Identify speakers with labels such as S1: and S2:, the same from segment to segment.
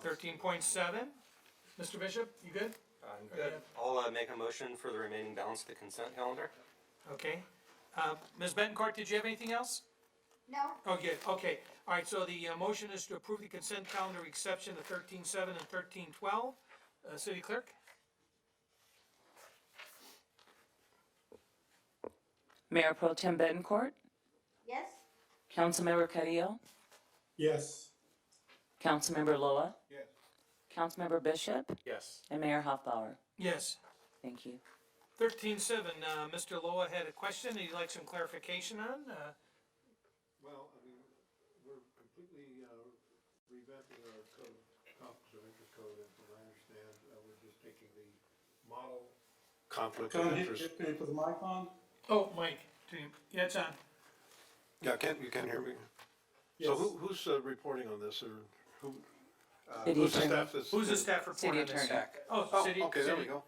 S1: Thirteen point seven, Mr. Bishop, you good?
S2: I'm
S1: Good.
S2: I'll uh, make a motion for the remaining balance of the consent calendar.
S1: Okay, uh, Ms. Betancourt, did you have anything else?
S3: No,
S1: Okay, okay, all right, so the uh, motion is to approve the consent calendar exception to thirteen seven and thirteen twelve. Uh, city clerk?
S4: Mayor Pro Tem Betancourt,
S3: yes,
S4: Councilmember Carrillo,
S5: Yes.
S4: Councilmember Loa,
S5: Yes.
S4: Councilmember Bishop,
S2: Yes.
S4: and Mayor Hoffbauer.
S1: Yes.
S4: Thank you.
S1: Thirteen seven, uh, Mr. Loa had a question he'd like some clarification on, uh,
S5: Well, I mean, we're completely uh, revamping our code, conflicts of interest code, and from what I understand, uh, we're just taking the model conflict of
S6: Can you
S5: interest.
S6: can you put the mic on?
S1: oh, Mike, do you- yeah, it's on.
S5: Yeah, can, you can hear me? So who, who's uh, reporting on this, or who, uh,
S4: City
S5: who's the
S4: attorney.
S5: staff that's?
S1: Who's the staff report
S4: City
S1: on this?
S4: attorney.
S1: Oh,
S5: Oh,
S1: city,
S5: okay, there we
S1: city,
S5: go.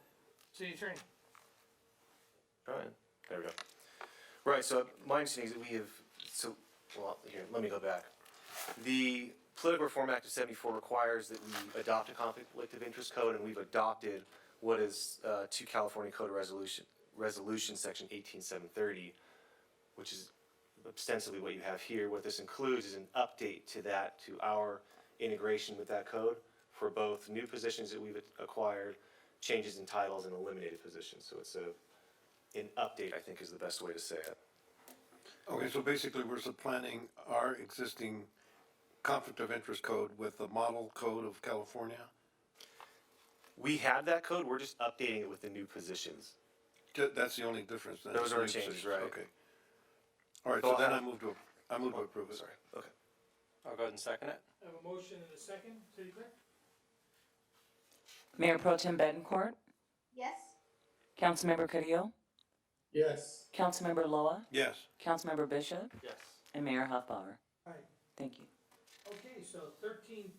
S1: city attorney.
S7: All right, there we go. Right, so my understanding is that we have, so, well, here, let me go back. The Political Reform Act of seventy-four requires that we adopt a conflict of interest code, and we've adopted what is, uh, to California Code of Resolution, Resolution, Section eighteen seven thirty, which is ostensibly what you have here. What this includes is an update to that, to our integration with that code for both new positions that we've acquired, changes in titles, and eliminated positions. So it's a an update, I think is the best way to say it.
S5: Okay, so basically, we're supplanting our existing conflict of interest code with the model code of California?
S7: We have that code, we're just updating it with the new positions.
S5: Ju- That's the only difference then?
S7: Those are
S5: New
S7: changes,
S5: positions,
S7: right.
S5: Okay. All right,
S7: So
S5: so
S7: I- Oh,
S5: then I move to, I move to approve it.
S7: Sorry, okay.
S2: I'll go ahead and second it.
S1: I have a motion and a second, city clerk?
S4: Mayor Pro Tem Betancourt,
S3: yes,
S4: Councilmember Carrillo,
S6: Yes.
S4: Councilmember Loa,
S5: Yes,
S4: Councilmember Bishop,
S2: Yes.
S4: and Mayor Hoffbauer.
S1: Alright.
S4: Thank you.
S1: Okay, so thirteen.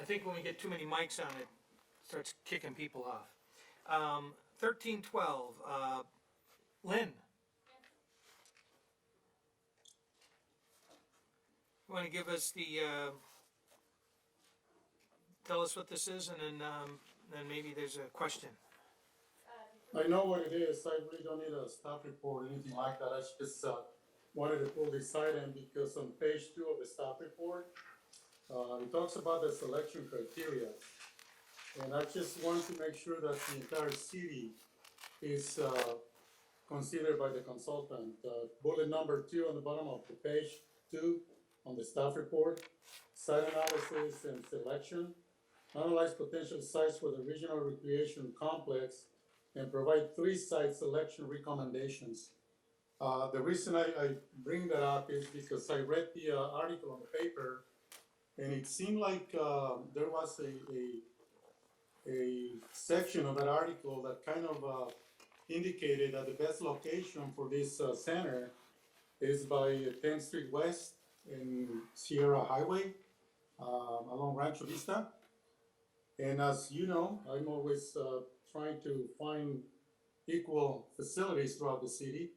S1: I think when we get too many mics on it, starts kicking people off. Um, thirteen twelve, uh, Lynn. Want to give us the, uh, tell us what this is and then, um, then maybe there's a question.
S6: I know what it is, I really don't need a staff report or anything like that, I just, uh, wanted to pull this item because on page two of the staff report, uh, it talks about the selection criteria. And I just want to make sure that the entire city is, uh, considered by the consultant. Uh, bullet number two on the bottom of the page two on the staff report, site analysis and selection. Analyze potential sites for the regional recreation complex and provide three site selection recommendations. Uh, the reason I, I bring that up is because I read the, uh, article on the paper, and it seemed like, uh, there was a, a, a section of that article that kind of, uh, indicated that the best location for this, uh, center is by Tenth Street West and Sierra Highway, um, along Rancho Vista. And as you know, I'm always uh, trying to find equal facilities throughout the city.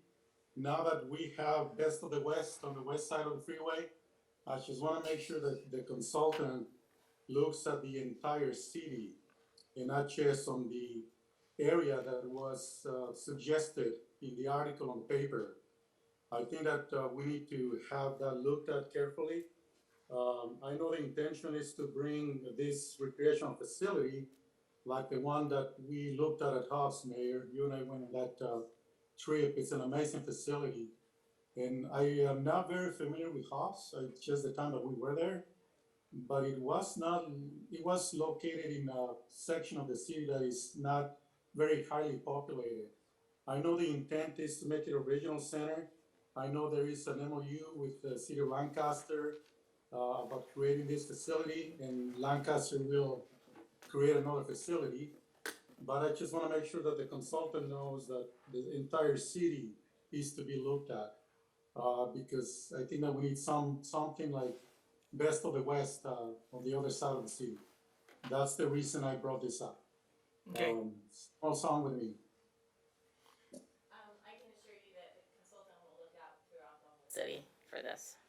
S6: Now that we have Best of the West on the west side of the freeway, I just want to make sure that the consultant looks at the entire city and not just on the area that was uh, suggested in the article on paper. I think that uh, we need to have that looked at carefully. Um, I know the intention is to bring this recreational facility like the one that we looked at at Hobbs, Mayor. You and I went on that, uh, trip. It's an amazing facility. And I am not very familiar with Hobbs, uh, just the time that we were there. But it was not, it was located in a section of the city that is not very highly populated. I know the intent is to make it a regional center. I know there is an MOU with the city of Lancaster uh, about creating this facility, and Lancaster will create another facility. But I just wanna make sure that the consultant knows that the entire city is to be looked at. Uh, because I think that we need some, something like best of the west, uh, on the other side of the city. That's the reason I brought this up.
S1: Okay,
S6: Um, What's wrong with me?
S8: Um, I can assure you that the consultant will look out throughout the whole city for this.